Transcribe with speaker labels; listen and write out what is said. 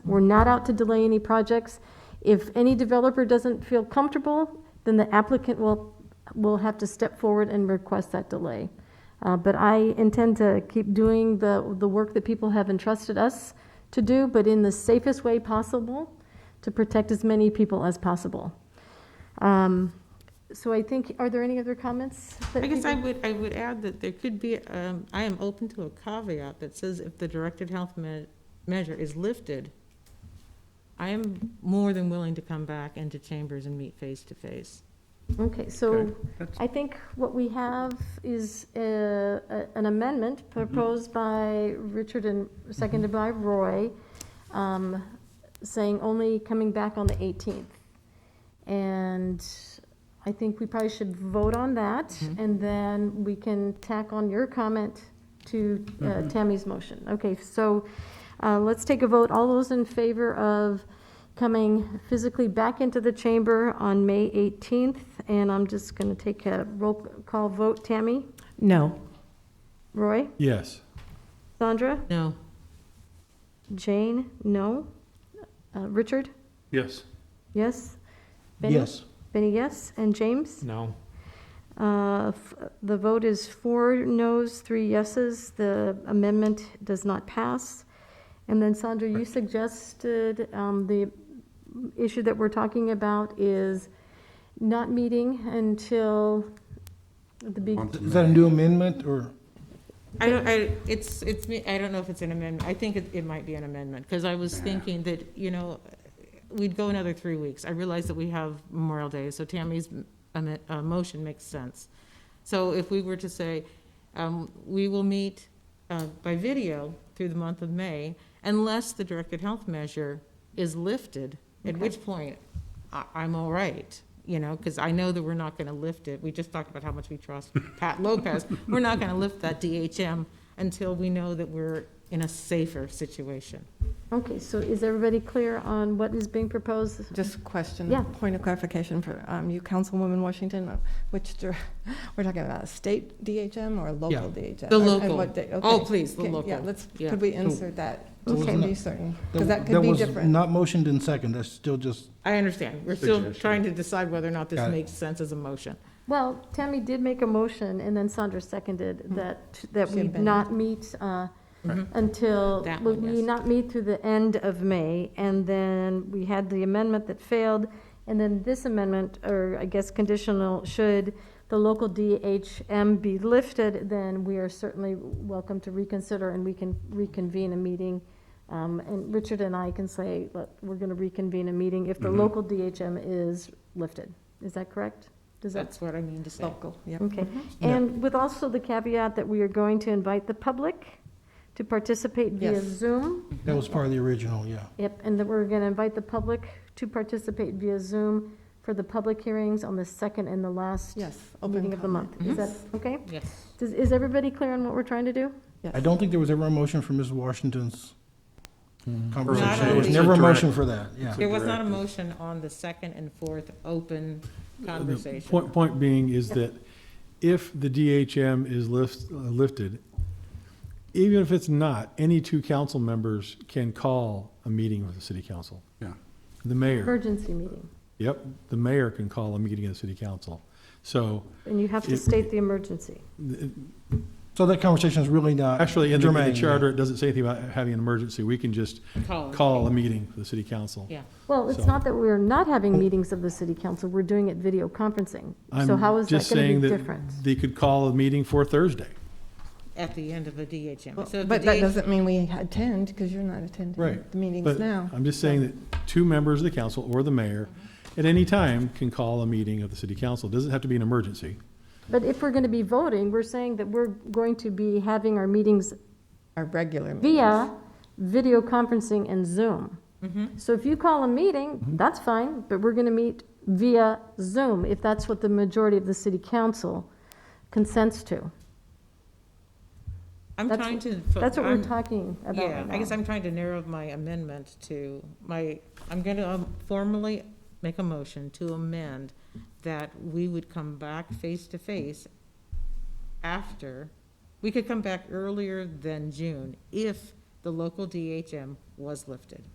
Speaker 1: We're not out to delay any projects. If any developer doesn't feel comfortable, then the applicant will, will have to step forward and request that delay. Uh, But I intend to keep doing the, the work that people have entrusted us to do, but in the safest way possible to protect as many people as possible. Um, So I think, are there any other comments? that
Speaker 2: I guess I
Speaker 1: people-
Speaker 2: would, I would add that there could be, um, I am open to a caveat that says if the directed health me- measure is lifted, I am more than willing to come back into chambers and meet face to face.
Speaker 1: Okay, so
Speaker 3: Okay, that's-
Speaker 1: I think what we have is uh, a- an amendment proposed by Richard and seconded by Roy, um, saying only coming back on the 18th. And I think we probably should vote on that, and then we can tack on your comment to uh, Tammy's motion. Okay, so uh, let's take a vote. All those in favor of coming physically back into the chamber on May 18th, and I'm just going to take a roll call vote. Tammy?
Speaker 4: No.
Speaker 1: Roy?
Speaker 3: Yes.
Speaker 1: Sandra?
Speaker 2: No,
Speaker 1: Jane? No? Uh, Richard?
Speaker 3: Yes.
Speaker 1: Yes? Benny? Benny, yes? And James?
Speaker 3: No.
Speaker 1: Uh, f- The vote is four noes, three yeses. The amendment does not pass. And then Sandra, you suggested um, the issue that we're talking about is not meeting until the big,
Speaker 5: Is that a new amendment, or?
Speaker 2: I don't, I, it's, it's me, I don't know if it's an amendment. I think it, it might be an amendment, because I was thinking that, you know, we'd go another three weeks. I realize that we have Memorial Day, so Tammy's m- am- uh, motion makes sense. So if we were to say, um, we will meet uh, by video through the month of May unless the directed health measure is lifted, at which point I, I'm all right, you know, because I know that we're not going to lift it. We just talked about how much we trust Pat Lopez. We're not going to lift that DHM until we know that we're in a safer situation.
Speaker 1: okay, so is everybody clear on what is being proposed?
Speaker 4: Just question.
Speaker 1: Yeah.
Speaker 4: Point of clarification for um, you, Councilwoman Washington, uh, which, dir- we're talking about a state DHM or a local DHM?
Speaker 2: The
Speaker 4: Or- and
Speaker 2: local.
Speaker 4: what day-
Speaker 2: Oh,
Speaker 4: okay.
Speaker 2: please, the
Speaker 4: Okay, Yeah,
Speaker 2: local.
Speaker 4: let's,
Speaker 2: Yeah.
Speaker 4: could we insert that, just
Speaker 1: Okay.
Speaker 4: to be certain? Because that could be
Speaker 5: was
Speaker 4: different.
Speaker 5: Not motioned in second, that's still just,
Speaker 2: I understand. We're still
Speaker 3: Suggestion.
Speaker 2: trying to decide whether or not this
Speaker 5: Got it.
Speaker 2: makes sense as a motion.
Speaker 1: Well, Tammy did make a motion, and then Sandra seconded that, that
Speaker 4: She
Speaker 1: we
Speaker 4: amended.
Speaker 1: not meet uh,
Speaker 2: Mhm.
Speaker 1: until,
Speaker 2: That
Speaker 1: we
Speaker 2: one,
Speaker 1: we
Speaker 2: yes.
Speaker 1: not meet through the end of May, and then we had the amendment that failed, and then this amendment, or I guess conditional, should the local DHM be lifted, then we are certainly welcome to reconsider, and we can reconvene a meeting. Um, And Richard and I can say, look, we're going to reconvene a meeting if the
Speaker 3: Mhm.
Speaker 1: local DHM is lifted. Is that correct? Does that
Speaker 2: That's what I mean to say.
Speaker 4: Local, yeah.
Speaker 1: Okay,
Speaker 5: Yeah.
Speaker 1: and with also the caveat that we are going to invite the public to participate via
Speaker 4: Yes.
Speaker 1: Zoom.
Speaker 5: that was part of the original, yeah.
Speaker 1: Yep, and that we're going to invite the public to participate via Zoom for the public hearings on the second and the last
Speaker 4: Yes. open Mm-hmm.
Speaker 1: meeting of the
Speaker 4: comment.
Speaker 1: month. Is that, okay?
Speaker 2: Yes.
Speaker 1: Does, is everybody clear on what we're trying to do?
Speaker 4: Yes.
Speaker 5: I don't think there was ever a motion for Ms. Washington's
Speaker 2: Not
Speaker 5: conversation. There
Speaker 2: only-
Speaker 5: was never a motion for that, yeah.
Speaker 2: There was not a
Speaker 3: Directed.
Speaker 2: motion on the second and fourth open
Speaker 3: The
Speaker 2: conversation.
Speaker 3: Point, point being is that if the DHM is lift, uh, lifted, even if it's not, any two council members can call a meeting of the city council.
Speaker 6: Yeah.
Speaker 3: The mayor,
Speaker 1: Emergency meeting,
Speaker 3: yep, the mayor can call a meeting of the city council. So
Speaker 1: and you have to
Speaker 3: It-
Speaker 1: state the emergency.
Speaker 5: So that conversation is really not
Speaker 3: actually, in the- in the
Speaker 5: germane, yeah.
Speaker 3: charter, it doesn't say anything about having an emergency. We can just
Speaker 2: Call.
Speaker 3: call a meeting for the city council.
Speaker 2: Yeah.
Speaker 1: Well, it's
Speaker 3: So-
Speaker 1: not that we're not having meetings of the city council, we're doing it video conferencing. So
Speaker 3: I'm
Speaker 1: how is that
Speaker 3: just
Speaker 1: going
Speaker 3: saying
Speaker 1: to be
Speaker 3: that
Speaker 1: different?
Speaker 3: They could call a meeting for Thursday.
Speaker 2: At the end of a DHM. So
Speaker 4: Well,
Speaker 2: if
Speaker 4: But
Speaker 2: the
Speaker 4: that
Speaker 2: DH
Speaker 4: doesn't mean we attend, because you're not attending
Speaker 3: Right,
Speaker 4: the meetings
Speaker 3: But
Speaker 4: now.
Speaker 3: I'm just saying that two members of the council or the mayor at any time can call a meeting of the city council. It Doesn't have to be an emergency.
Speaker 1: But if we're going to be voting, we're saying that we're going to be having our meetings
Speaker 4: Our regular meetings.
Speaker 1: via video conferencing and Zoom.
Speaker 2: Mm-hmm.
Speaker 1: So if you call a meeting, that's fine, but we're going to meet via Zoom if that's what the majority of the city council consents to.
Speaker 2: I'm
Speaker 1: That's-
Speaker 2: trying to. fo-
Speaker 1: That's what we're
Speaker 2: I'm-
Speaker 1: talking about
Speaker 2: Yeah,
Speaker 1: right
Speaker 2: I guess
Speaker 1: now.
Speaker 2: I'm trying to narrow my amendment to my, I'm going to formally make a motion to amend that we would come back face to face after, we could come back earlier than June if the local DHM was lifted.